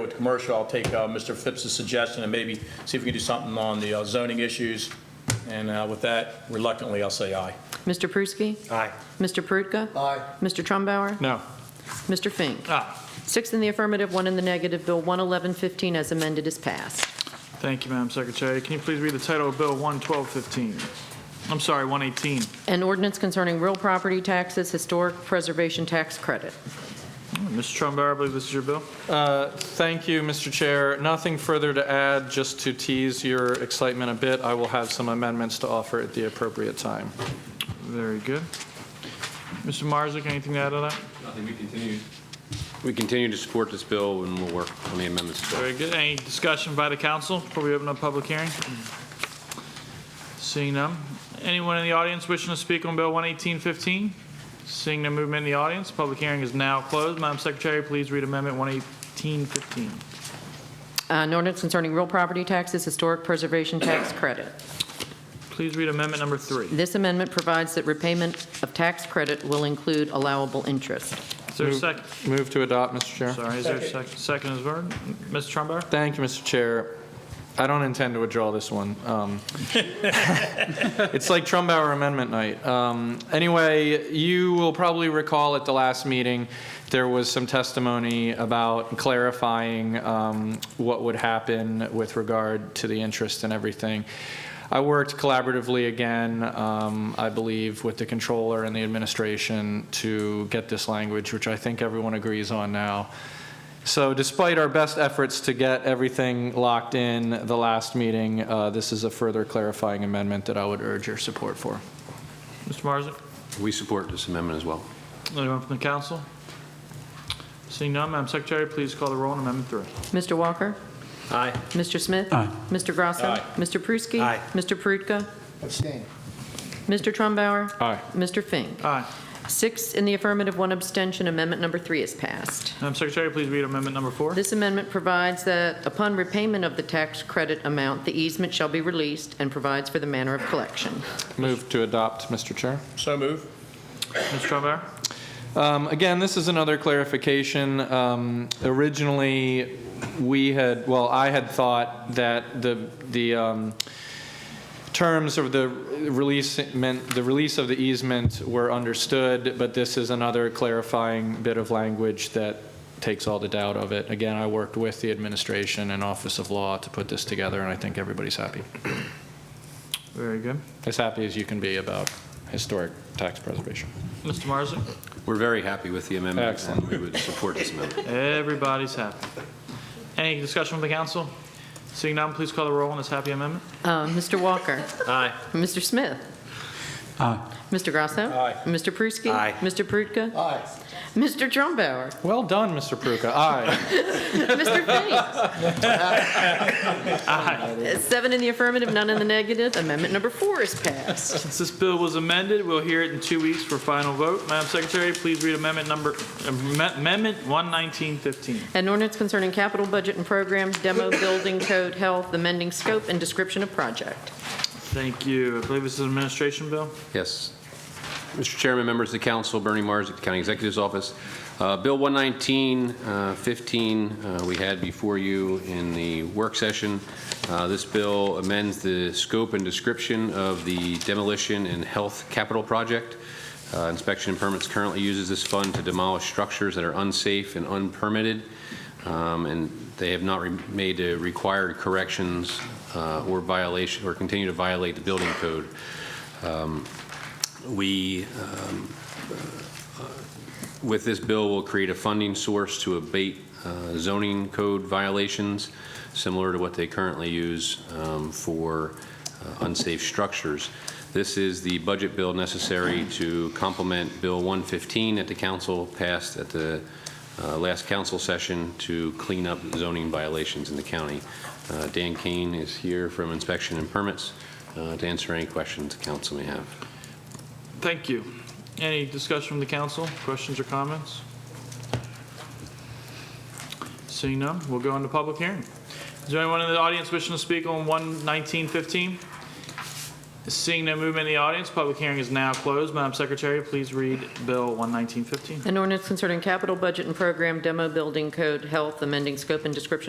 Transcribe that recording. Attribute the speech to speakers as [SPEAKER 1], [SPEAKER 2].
[SPEAKER 1] with commercial, I'll take uh, Mr. Phipps's suggestion and maybe see if we can do something on the uh, zoning issues. And uh, with that, reluctantly, I'll say aye.
[SPEAKER 2] Mr. Pruski.
[SPEAKER 3] Aye.
[SPEAKER 2] Mr. Perutka. Aye. Mr. Trumbauer.
[SPEAKER 3] No. Ah.
[SPEAKER 2] Mr. Fink.
[SPEAKER 3] Aye.
[SPEAKER 2] Six in the affirmative, one in the negative. Bill 11115 as amended is passed.
[SPEAKER 3] Thank you, Madam Secretary. Can you please read the title of Bill 11215? I'm sorry, 118.
[SPEAKER 2] An ordinance concerning real property taxes, historic preservation tax credit.
[SPEAKER 3] Mr. Trumbauer, I believe this is your bill.
[SPEAKER 4] Uh, Thank you, Mr. Chair. Nothing further to add, just to tease your excitement a bit. I will have some amendments to offer at the appropriate time.
[SPEAKER 3] Very good. Mr. Marzick, anything to add to that?
[SPEAKER 5] Nothing, we continue. We continue to support this bill, and we'll work on the amendments. as well.
[SPEAKER 3] Very good. Any discussion by the council before we open up public hearing? Seeing none. Anyone in the audience wishing to speak on Bill 11815? Seeing no movement in the audience, public hearing is now closed. Madam Secretary, please read Amendment 11815.
[SPEAKER 2] An ordinance concerning real property taxes, historic preservation tax credit.
[SPEAKER 3] Please read Amendment Number 3.
[SPEAKER 2] This amendment provides that repayment of tax credit will include allowable interest.
[SPEAKER 3] Is there a second?
[SPEAKER 4] Move to adopt, Mr. Chair.
[SPEAKER 3] Sorry, is there a second? Second is word. Mr. Trumbauer?
[SPEAKER 4] Thank you, Mr. Chair. I don't intend to withdraw this one. Um, It's like Trumbauer Amendment night. Um, Anyway, you will probably recall at the last meeting, there was some testimony about clarifying um, what would happen with regard to the interest and everything. I worked collaboratively again, um, I believe, with the controller and the administration to get this language, which I think everyone agrees on now. So despite our best efforts to get everything locked in the last meeting, uh, this is a further clarifying amendment that I would urge your support for.
[SPEAKER 3] Mr. Marzick?
[SPEAKER 5] We support this amendment as well.
[SPEAKER 3] Anyone from the council? Seeing none, Madam Secretary, please call the roll on Amendment 3.
[SPEAKER 2] Mr. Walker?
[SPEAKER 3] Aye.
[SPEAKER 2] Mr. Smith? Aye. Mr. Grasso?
[SPEAKER 1] Aye.
[SPEAKER 2] Mr. Pruski?
[SPEAKER 3] Aye.
[SPEAKER 2] Mr. Perutka?
[SPEAKER 6] Abstain.
[SPEAKER 2] Mr. Trumbauer?
[SPEAKER 3] Ah.
[SPEAKER 4] Aye.
[SPEAKER 2] Mr. Fink?
[SPEAKER 3] Aye.
[SPEAKER 2] Six in the affirmative, one abstention. Amendment number three is passed.
[SPEAKER 3] Madam Secretary, please read Amendment Number 4.
[SPEAKER 2] This amendment provides that upon repayment of the tax credit amount, the easement shall be released and provides for the manner of collection.
[SPEAKER 4] Move to adopt, Mr. Chair.
[SPEAKER 1] So move.
[SPEAKER 3] Mr. Trumbauer?
[SPEAKER 4] Um, Again, this is another clarification. Um, Originally, we had, well, I had thought that the, the um, terms of the release, meant, the release of the easement were understood, but this is another clarifying bit of language that takes all the doubt of it. Again, I worked with the administration and Office of Law to put this together, and I think everybody's happy.
[SPEAKER 3] Very good.
[SPEAKER 4] As happy as you can be about historic tax preservation.
[SPEAKER 3] Mr. Marzick?
[SPEAKER 5] We're very happy with the amendment, and
[SPEAKER 4] Excellent.
[SPEAKER 5] we would support this amendment.
[SPEAKER 3] Everybody's happy. Any discussion from the council? Seeing none, please call the roll on this happy amendment.
[SPEAKER 2] Uh, Mr. Walker?
[SPEAKER 3] Aye.
[SPEAKER 2] Mr. Smith? Aye. Mr. Grasso?
[SPEAKER 1] Aye.
[SPEAKER 2] Mr. Pruski?
[SPEAKER 3] Aye.
[SPEAKER 2] Mr. Perutka?
[SPEAKER 6] Aye.
[SPEAKER 2] Mr. Trumbauer?
[SPEAKER 4] Well done, Mr. Peruka. Aye.
[SPEAKER 2] Mr. Fink?
[SPEAKER 3] Aye.
[SPEAKER 2] Seven in the affirmative, none in the negative. Amendment number four is passed.
[SPEAKER 3] Since this bill was amended, we'll hear it in two weeks for final vote. Madam Secretary, please read amendment number, amendment 11915.
[SPEAKER 2] An ordinance concerning capital budget and program, demo building code, health, amending scope and description of project.
[SPEAKER 3] Thank you. I believe this is an administration bill.
[SPEAKER 5] Yes. Mr. Chairman, members of the council, Bernie Mars at the County Executive's Office. Uh, Bill 119, uh, 15, uh, we had before you in the work session. Uh, This bill amends the scope and description of the demolition and health capital project. Uh, Inspection and permits currently uses this fund to demolish structures that are unsafe and unpermitted, um, and they have not re- made the required corrections uh, or violation, or continue to violate the building code we, um, uh, with this bill, will create a funding source to abate uh, zoning code violations, similar to what they currently use um, for uh, unsafe structures. This is the budget bill necessary to complement Bill 115 that the council passed at the uh, last council session to clean up zoning violations in the county. Uh, Dan Kane is here from Inspection and Permits uh, to answer any questions the council may have.
[SPEAKER 3] Thank you. Any discussion from the council? Questions or comments? Seeing none, we'll go into public hearing. Is there anyone in the audience wishing to speak on 11915? Seeing no movement in the audience, public hearing is now closed. Madam Secretary, please read Bill 11915.
[SPEAKER 2] An ordinance concerning capital budget and program demo building code health, amending scope and description